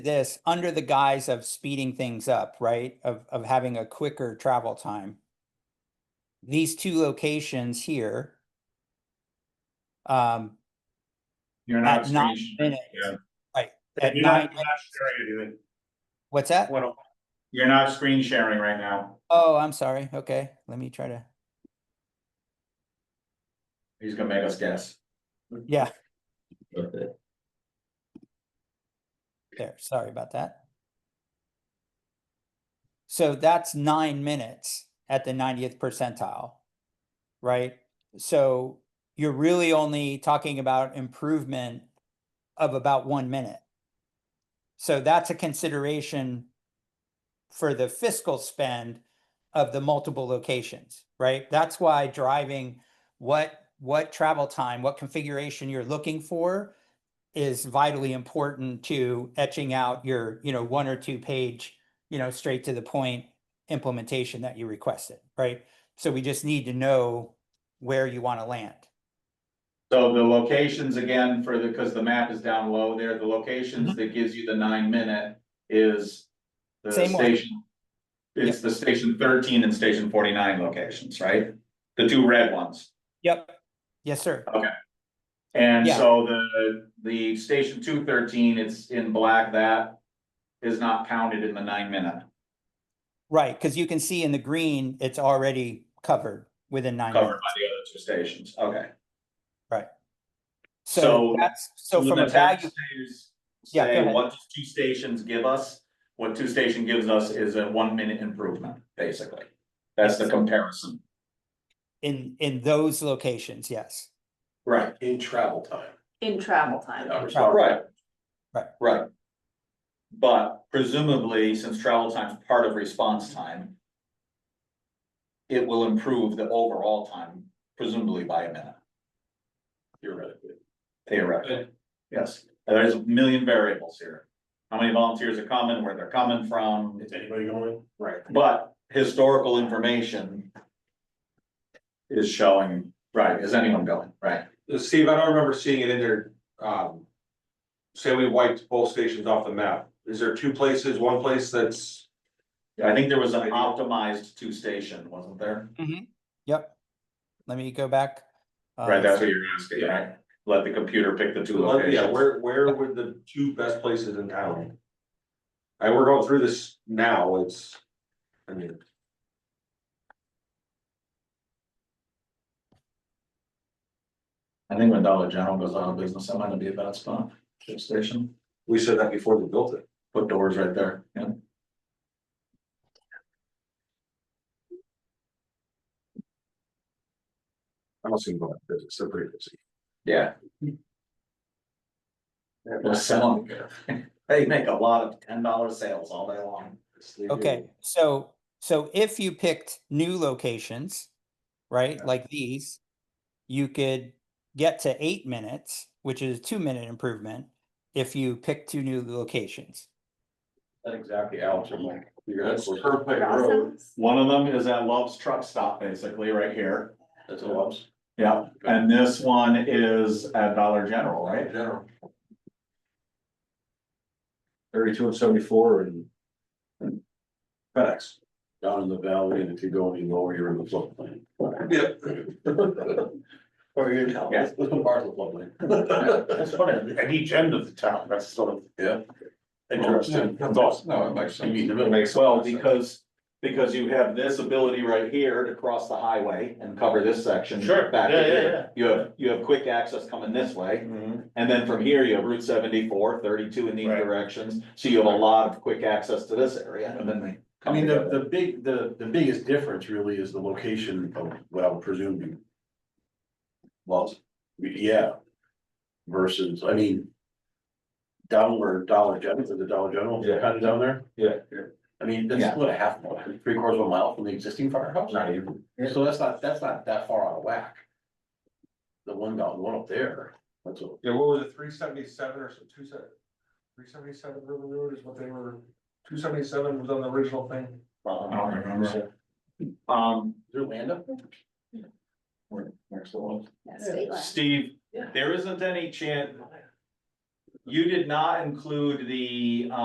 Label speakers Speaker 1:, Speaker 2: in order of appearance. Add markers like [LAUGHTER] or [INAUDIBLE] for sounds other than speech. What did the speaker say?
Speaker 1: this under the guise of speeding things up, right? Of, of having a quicker travel time. These two locations here. Um,
Speaker 2: You're not.
Speaker 1: at nine
Speaker 2: screened.
Speaker 1: minutes.
Speaker 2: yeah.
Speaker 1: Right, at
Speaker 2: You're not,
Speaker 1: nine,
Speaker 2: you're not sharing anything.
Speaker 1: what's that?
Speaker 2: What- You're not screen sharing right now.
Speaker 1: Oh, I'm sorry. Okay, let me try to,
Speaker 2: He's gonna make us guess.
Speaker 1: yeah,
Speaker 2: Okay.
Speaker 1: there, sorry about that. So that's nine minutes at the ninetieth percentile, right? So you're really only talking about improvement of about one minute. So that's a consideration for the fiscal spend of the multiple locations, right? That's why driving what, what travel time, what configuration you're looking for is vitally important to etching out your, you know, one or two page, you know, straight to the point implementation that you requested, right? So we just need to know where you want to land.
Speaker 2: So the locations again for the, because the map is down low there, the
Speaker 1: Mm-hmm.
Speaker 2: locations that gives you the nine minute is the
Speaker 1: Same one.
Speaker 2: station. It's the station thirteen and station forty-nine locations, right? The two red ones.
Speaker 1: Yep. Yes, sir.
Speaker 2: And
Speaker 1: Yeah.
Speaker 2: so the, the station two thirteen, it's in black, that is not counted in the nine minute
Speaker 1: Right, because you can see in the green, it's already covered within nine
Speaker 2: covered
Speaker 1: minutes.
Speaker 2: by the other two stations, okay.
Speaker 1: So
Speaker 2: so
Speaker 1: that's, so from a
Speaker 2: the
Speaker 1: value,
Speaker 2: taxpayers
Speaker 1: Yeah, go
Speaker 2: Say
Speaker 1: ahead.
Speaker 2: what does two stations give us, what two station gives us is a one minute improvement, basically. That's the comparison.
Speaker 1: in, in those locations, yes.
Speaker 2: Right.
Speaker 3: in travel time.
Speaker 4: in travel time.
Speaker 2: Right.
Speaker 1: Right.
Speaker 2: Right. But presumably, since travel time is part of response time. It will improve the overall time presumably by a minute.
Speaker 3: Theoretically.
Speaker 2: Theoretically, yes, there's a million variables here. How many volunteers are coming, where they're coming from,
Speaker 3: Is anybody going? Right.
Speaker 2: but historical information. Is showing, right, is anyone going, right?
Speaker 5: Uh, Steve, I don't remember seeing it in there, um. Say we wiped both stations off the map, is there two places, one place that's,
Speaker 2: I think there was an optimized two station, wasn't there?
Speaker 1: Yep. Let me go back. uh,
Speaker 2: Right, that's what you're asking, right? Let the computer pick the two
Speaker 5: yeah,
Speaker 2: locations.
Speaker 5: where, where were the two best places in town? And we're going through this now, it's, I mean.
Speaker 2: I think when Dollar General goes out of business, that might not be a bad spot, two station,
Speaker 5: We said that before they built it.
Speaker 2: put doors right there, yeah.
Speaker 5: I don't see them going, they're they're pretty busy.
Speaker 2: Yeah. They're selling good. They make a lot of ten dollar sales all day long.
Speaker 1: Okay, so, so if you picked new locations, right, like these, you could get to eight minutes, which is a two minute improvement if you pick two new locations.
Speaker 5: That's exactly, Alex, I'm like, you're
Speaker 2: That's the
Speaker 5: perfect
Speaker 4: Crossings?
Speaker 2: One of them is at Love's Truck Stop, basically, right here.
Speaker 5: That's what I'm
Speaker 2: Yeah, and this one is at Dollar General, right?
Speaker 5: saying, general.
Speaker 3: Thirty-two and seventy-four and
Speaker 5: FedEx.
Speaker 3: down in the valley, and if you go any lower, you're in the floodplain. [LAUGHS] Or you're in hell. [LAUGHS]
Speaker 2: Yeah.
Speaker 3: Part of the floodplain. That's funny, at each end of the town, that's sort of. Yeah. [LAUGHS] Interesting. That's awesome.
Speaker 5: No, it makes sense.
Speaker 3: You mean the
Speaker 2: It
Speaker 3: middle.
Speaker 2: makes well, because, because you have this ability right here to cross the highway and cover this section.
Speaker 3: Sure,
Speaker 2: Back
Speaker 3: yeah,
Speaker 2: to
Speaker 3: yeah, Mm-hmm.
Speaker 2: here. You have, you have quick access coming this way, and then from here you have Route 74, 32 in these
Speaker 3: Right.
Speaker 2: directions, so you have a lot of quick access to this area, and then they.
Speaker 3: I
Speaker 2: come
Speaker 3: mean, the,
Speaker 2: together.
Speaker 3: the big, the, the biggest difference really is the location of, well, presumably. Well, yeah. Versus, I mean. Down where Dollar General, is the Dollar General,
Speaker 5: Yeah.
Speaker 3: kind of down there,
Speaker 5: Yeah.
Speaker 3: I mean,
Speaker 2: Yeah.
Speaker 3: that's what a half mile, three quarters of a mile from the existing firehouse.
Speaker 5: Not even.
Speaker 3: So that's not, that's not that far out of whack. The one down, the one up there, that's all.
Speaker 5: Yeah, what was it, three seventy-seven or some two seven? Three seventy-seven River Road is what they were, two seventy-seven was on the original thing.
Speaker 2: I don't remember. Um,
Speaker 3: Is there land up there?
Speaker 2: next one.
Speaker 4: Yeah, state line.
Speaker 2: Steve,
Speaker 3: Yeah.
Speaker 2: there isn't any chance, you did not include the,